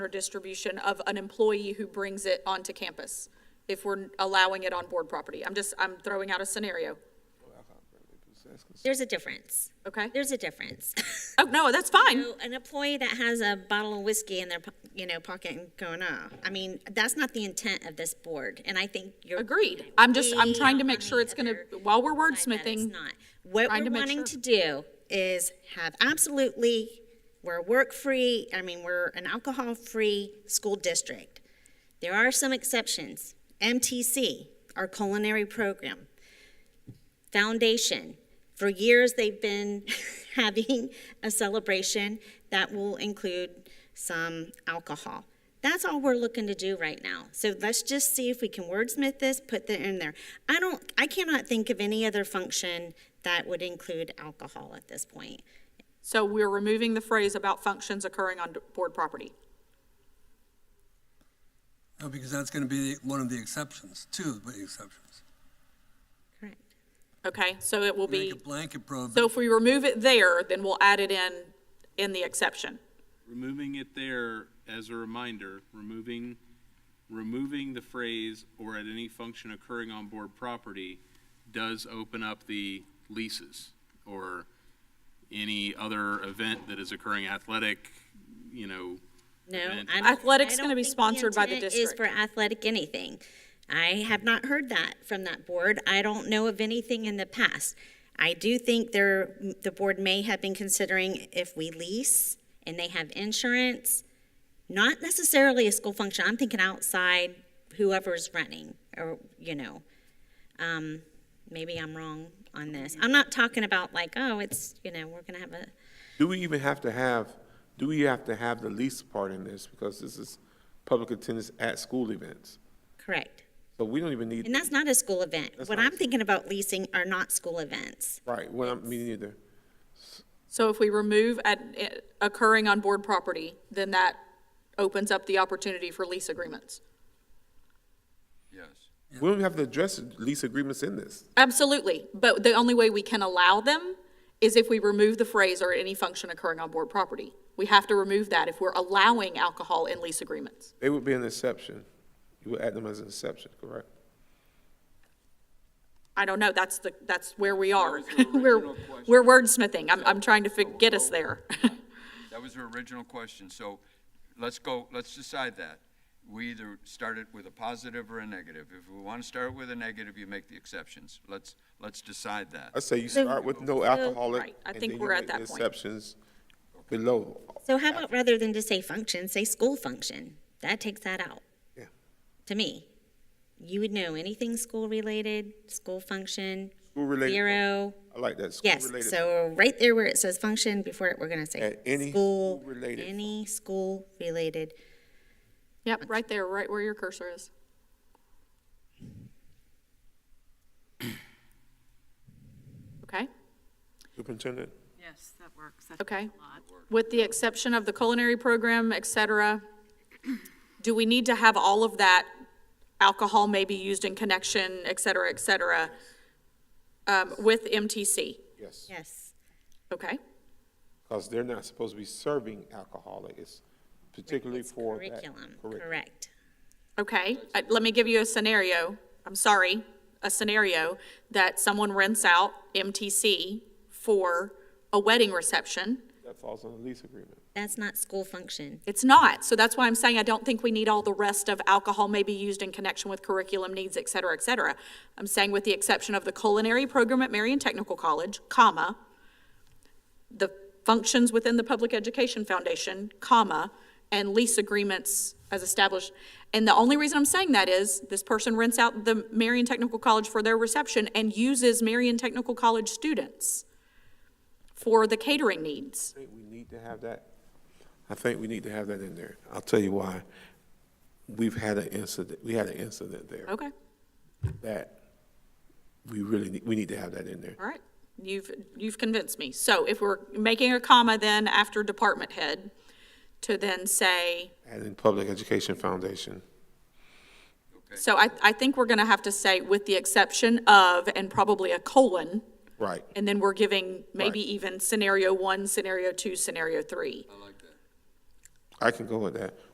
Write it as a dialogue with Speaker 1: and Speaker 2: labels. Speaker 1: or distribution of an employee who brings it onto campus, if we're allowing it on board property. I'm just, I'm throwing out a scenario,
Speaker 2: There's a difference.
Speaker 1: okay?
Speaker 2: There's a difference.
Speaker 1: Oh, no, that's fine.
Speaker 2: So an employee that has a bottle of whiskey in their, po- you know, pocket and going off. I mean, that's not the intent of this board, and I think you're.
Speaker 1: Agreed. I'm just, I'm
Speaker 2: way
Speaker 1: trying to
Speaker 2: off
Speaker 1: make
Speaker 2: on
Speaker 1: sure
Speaker 2: the
Speaker 1: it's gonna,
Speaker 2: other
Speaker 1: while we're
Speaker 2: side that it's
Speaker 1: wordsmithing,
Speaker 2: not. What
Speaker 1: trying to
Speaker 2: we're
Speaker 1: make
Speaker 2: wanting
Speaker 1: sure.
Speaker 2: to do is have absolutely, we're a work-free, I mean, we're an alcohol-free school district. There are some exceptions. MTC, our culinary program. Foundation, for years, they've been having a celebration that will include some alcohol. That's all we're looking to do right now. So let's just see if we can wordsmith this, put that in there. I don't, I cannot think of any other function that would include alcohol at this point.
Speaker 1: so we're removing the phrase about functions occurring on board property.
Speaker 3: No, Oh, because that's going to be one of the exceptions, two of the exceptions.
Speaker 2: Correct.
Speaker 1: Okay, so it will
Speaker 3: Make
Speaker 1: be,
Speaker 3: a blanket
Speaker 1: so
Speaker 3: prohibition.
Speaker 1: if we remove it there, then we'll add it in, in the exception.
Speaker 4: Removing it there as a reminder, removing, removing the phrase or at any function occurring on board property does open up the leases or any other event that is occurring athletic, you know.
Speaker 2: No,
Speaker 4: event.
Speaker 2: I don't-
Speaker 1: Athletic's
Speaker 2: I
Speaker 1: gonna
Speaker 2: don't
Speaker 1: be
Speaker 2: think the
Speaker 1: sponsored by the
Speaker 2: intent
Speaker 1: district.
Speaker 2: Is for athletic anything. I have not heard that from that board. I don't know of anything in the past. I do think there, the board may have been considering if we lease and they have insurance, not necessarily a school function. I'm thinking outside whoever's running or, you know. Um, maybe I'm wrong on this. I'm not talking about like, oh, it's, you know, we're gonna have a,
Speaker 5: Do we even have to have, do we have to have the lease part in this? Because this is public attendance at school events.
Speaker 2: correct.
Speaker 5: So we don't even
Speaker 2: And
Speaker 5: need,
Speaker 2: that's not a school event.
Speaker 5: That's
Speaker 2: What
Speaker 5: not a
Speaker 2: I'm
Speaker 5: school-
Speaker 2: thinking about leasing are not school events.
Speaker 5: right, well, me neither.
Speaker 1: So if we remove at, eh, occurring on board property, then that opens up the opportunity for lease agreements.
Speaker 4: Yes.
Speaker 5: We don't even have to address lease agreements in this.
Speaker 1: Absolutely, but the only way we can allow them is if we remove the phrase or any function occurring on board property. We have to remove that if we're allowing alcohol in lease agreements.
Speaker 5: They would be an exception. You would add them as an exception, correct?
Speaker 1: I don't know, that's the, that's where we are. We're, we're wordsmithing, I'm, I'm trying to fig- get us there.
Speaker 6: That was her original question, so let's go, let's decide that. We either start it with a positive or a negative. If we want to start with a negative, you make the exceptions. Let's, let's decide that.
Speaker 5: I say you start with no alcoholic,
Speaker 1: Right, I
Speaker 5: and
Speaker 1: think
Speaker 5: then you
Speaker 1: we're at
Speaker 5: make the
Speaker 1: that point.
Speaker 5: exceptions below.
Speaker 2: So how about rather than just say function, say school function? That takes that out.
Speaker 5: Yeah.
Speaker 2: To me, you would know anything school related, school function,
Speaker 5: School-related.
Speaker 2: zero.
Speaker 5: I like that.
Speaker 2: Yes,
Speaker 5: School-related.
Speaker 2: so right there where it says function, before it, we're gonna say
Speaker 5: At any
Speaker 2: school,
Speaker 5: school-related
Speaker 2: Any school related.
Speaker 1: Yep, right there, right where your cursor is. Okay?
Speaker 5: Superintendent,
Speaker 7: Yes, that works. That
Speaker 1: Okay.
Speaker 7: helps a lot.
Speaker 1: With the exception of the culinary program, et cetera, do we need to have all of that alcohol may be used in connection, et cetera, et cetera, um, with MTC?
Speaker 5: yes,
Speaker 2: Yes,
Speaker 1: Okay,
Speaker 5: because they're not supposed to be serving alcoholic. It's particularly
Speaker 2: it's
Speaker 5: for that.
Speaker 2: curriculum,
Speaker 5: curriculum.
Speaker 2: correct.
Speaker 1: okay. Uh, Let me give you a scenario. I'm sorry, a scenario that someone rents out MTC for a wedding reception.
Speaker 5: That falls on the lease agreement.
Speaker 2: That's not school function.
Speaker 1: It's not. So that's why I'm saying I don't think we need all the rest of alcohol may be used in connection with curriculum needs, et cetera, et cetera. I'm saying with the exception of the culinary program at Marion Technical College, comma, the functions within the Public Education Foundation, comma, and lease agreements as established. And the only reason I'm saying that is this person rents out the Marion Technical College for their reception and uses Marion Technical College students for the catering needs.
Speaker 5: I think we need to have that, I think we need to have that in there. I'll tell you why. We've had an incident, we had an incident there
Speaker 1: Okay.
Speaker 5: that we really, need- we need to have that in there.
Speaker 1: All right, you've, you've convinced me. So if we're making a comma then after department head, to then say,
Speaker 5: And in Public Education Foundation,
Speaker 1: so I, I think we're gonna have to say with the exception of and probably a colon,
Speaker 5: right.
Speaker 1: and then we're giving maybe
Speaker 5: Right.
Speaker 1: even scenario one, scenario two, scenario three.
Speaker 5: I can go with that.